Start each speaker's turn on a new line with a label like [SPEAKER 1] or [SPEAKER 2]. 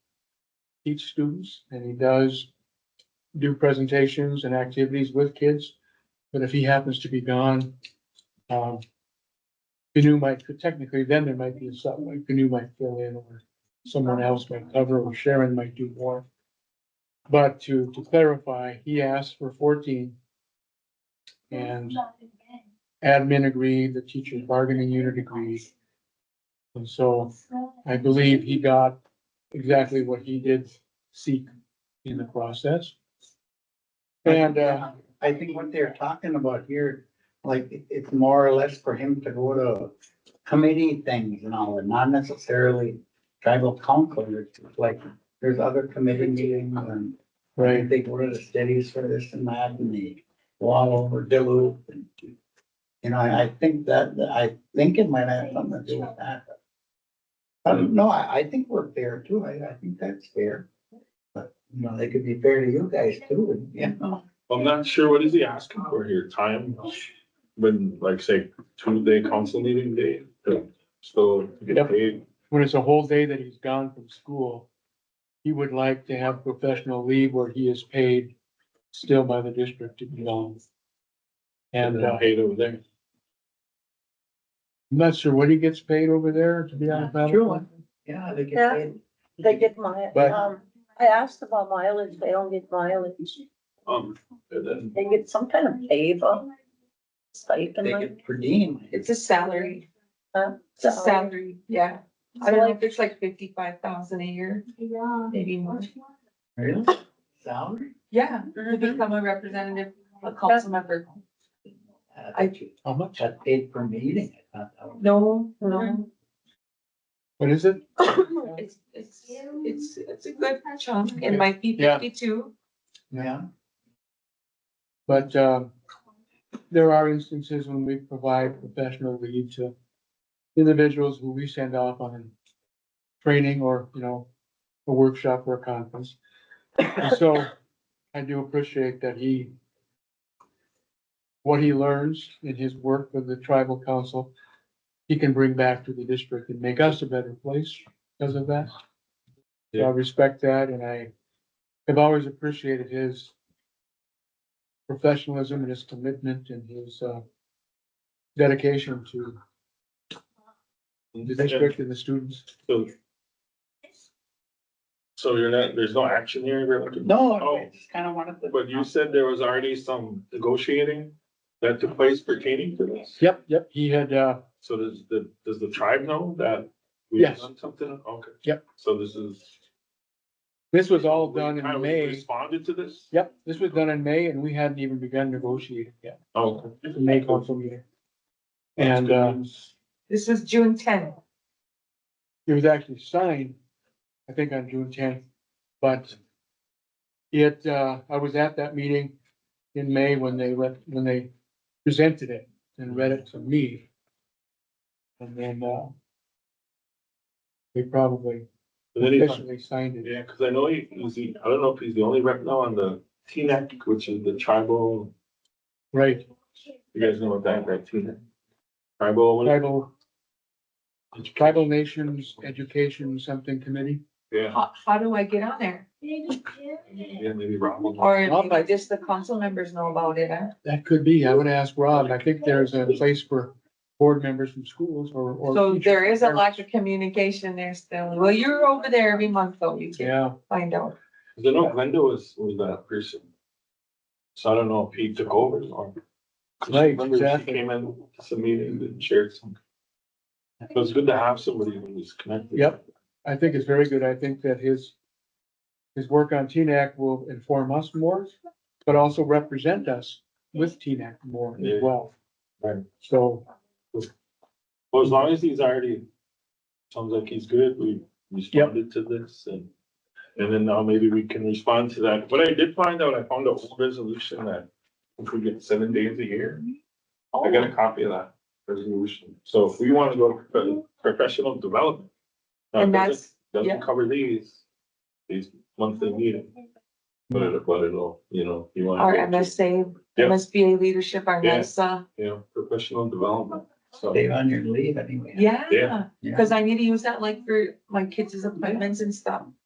[SPEAKER 1] teach students and he does do presentations and activities with kids. But if he happens to be gone, um, Canoe might, technically then there might be a subway, Canoe might fill in or someone else might cover or Sharon might do more. But to, to clarify, he asked for fourteen. And admin agreed, the teacher's bargaining unit agreed. And so I believe he got exactly what he did seek in the process. And, uh,
[SPEAKER 2] I think what they're talking about here, like, it- it's more or less for him to go to committee things and all, and not necessarily tribal council, it's just like, there's other committee meetings and
[SPEAKER 1] right,
[SPEAKER 2] they go to the studies for this and that, and they wall over Duluth and you know, I, I think that, that- I think it might have something to do with that. I don't know, I, I think we're fair too, I, I think that's fair. But, you know, they could be fair to you guys too, and, you know.
[SPEAKER 3] I'm not sure what is he asking for here, time, when, like, say, Tuesday council meeting day, to still get
[SPEAKER 1] Yep.
[SPEAKER 3] paid.
[SPEAKER 1] when it's a whole day that he's gone from school, he would like to have professional leave where he is paid still by the district to be gone. And, uh,
[SPEAKER 3] Paid over there.
[SPEAKER 1] I'm not sure what he gets paid over there, to be honest. Madam
[SPEAKER 2] Sure.
[SPEAKER 1] Clerk.
[SPEAKER 2] Yeah, they
[SPEAKER 4] Yeah.
[SPEAKER 2] get paid.
[SPEAKER 4] They get my,
[SPEAKER 1] But-
[SPEAKER 4] um, I asked about mileage, they don't get mileage,
[SPEAKER 3] Um, and then,
[SPEAKER 4] they get some kind of pay, but stipend,
[SPEAKER 2] They
[SPEAKER 4] like,
[SPEAKER 2] get per diem.
[SPEAKER 5] It's a salary,
[SPEAKER 4] uh,
[SPEAKER 5] it's a
[SPEAKER 4] salary.
[SPEAKER 5] salary, yeah. I
[SPEAKER 4] So
[SPEAKER 5] don't know if
[SPEAKER 4] like,
[SPEAKER 5] it's like fifty-five thousand a year, maybe more.
[SPEAKER 2] Really? Salary?
[SPEAKER 5] Yeah, to
[SPEAKER 4] mhm,
[SPEAKER 5] become a representative, a council member.
[SPEAKER 2] I thought
[SPEAKER 1] How much?
[SPEAKER 2] that's paid per meeting. I thought that was-
[SPEAKER 5] No, no.
[SPEAKER 1] What is it?
[SPEAKER 5] It's, it's, it's, it's a good chunk. It might be
[SPEAKER 1] Yeah.
[SPEAKER 5] fifty-two.
[SPEAKER 2] Yeah,
[SPEAKER 1] But, um, there are instances when we provide professional leave to individuals who we send off on training or, you know, a workshop or a conference. And so I do appreciate that he, what he learns in his work with the tribal council, he can bring back to the district and make us a better place because of that. So I
[SPEAKER 3] Yeah.
[SPEAKER 1] respect that and I have always appreciated his professionalism and his commitment and his, uh, dedication to the district and the students.
[SPEAKER 3] so, so you're not, there's no action here, really?
[SPEAKER 2] no, I
[SPEAKER 3] Oh,
[SPEAKER 2] just kind of wanted to.
[SPEAKER 3] but you said there was already some negotiating that took place pertaining to this?
[SPEAKER 1] Yep, yep, he had, uh,
[SPEAKER 3] So does the, does the tribe know that? we've
[SPEAKER 1] Yes.
[SPEAKER 3] done Something, okay.
[SPEAKER 1] Yep.
[SPEAKER 3] So this is.
[SPEAKER 1] this was all done
[SPEAKER 3] Kind
[SPEAKER 1] in
[SPEAKER 3] of
[SPEAKER 1] May.
[SPEAKER 3] Responded to this?
[SPEAKER 1] Yep, this was done in May and we hadn't even begun negotiating yet,
[SPEAKER 3] Oh.
[SPEAKER 1] the May council meeting. And, uh,
[SPEAKER 5] This was June tenth.
[SPEAKER 1] it was actually signed, I think on June tenth, but it, uh, I was at that meeting in May when they read, when they presented it and read it to me. And then, uh, they probably
[SPEAKER 3] And then he's,
[SPEAKER 1] officially signed it.
[SPEAKER 3] yeah, because I know he, is he, I don't know if he's the only rep now on the T-neck, which is the tribal,
[SPEAKER 1] Right,
[SPEAKER 3] you guys know what that, that T-neck? Tribal, what is it?
[SPEAKER 1] tribal, tribal nations, education, something committee.
[SPEAKER 3] yeah,
[SPEAKER 5] How, how do I get on there?
[SPEAKER 3] yeah, maybe Rob. will-
[SPEAKER 5] Or
[SPEAKER 1] Well, I-
[SPEAKER 5] maybe just the council members know about it, huh?
[SPEAKER 1] That could be. I would ask Rob. I think there's a place for board members from schools or, or.
[SPEAKER 5] So
[SPEAKER 1] teachers.
[SPEAKER 5] there is a lack of communication there still. Well, you're over there every month, though. You can
[SPEAKER 1] Yeah,
[SPEAKER 5] find out.
[SPEAKER 3] 'Cause I know Glenda was, was that person. So I don't know if he took over or. 'cause I
[SPEAKER 1] Right,
[SPEAKER 3] remember she
[SPEAKER 1] exactly.
[SPEAKER 3] Came in to some meetings and shared some. So it's good to have somebody who's connected.
[SPEAKER 1] Yep. I think it's very good. I think that his, his work on TNAC will inform us more, but also represent us with TNAC more
[SPEAKER 3] Yeah.
[SPEAKER 1] as well.
[SPEAKER 3] Right.
[SPEAKER 1] So,
[SPEAKER 3] Well, as long as he's already, sounds like he's good, we responded to this and. And then now maybe we can respond to that. What I did find out, I found a whole resolution that if we get seven days a year,
[SPEAKER 4] oh,
[SPEAKER 3] I got a copy of that resolution. So if we want to go to prof- professional development. now,
[SPEAKER 5] And
[SPEAKER 3] it doesn't-
[SPEAKER 5] that's, yeah.
[SPEAKER 3] Doesn't cover these, these monthly meetings, but it, but it'll, you know, you want.
[SPEAKER 5] our MSA,
[SPEAKER 3] Yeah.
[SPEAKER 5] MSBA leadership, our
[SPEAKER 3] Yeah.
[SPEAKER 5] NISA.
[SPEAKER 3] You know, professional development, so.
[SPEAKER 2] Stay on your leave anyway.
[SPEAKER 5] Yeah,
[SPEAKER 3] Yeah.
[SPEAKER 2] Yeah.
[SPEAKER 5] because I need to use that like for my kids' appointments and stuff.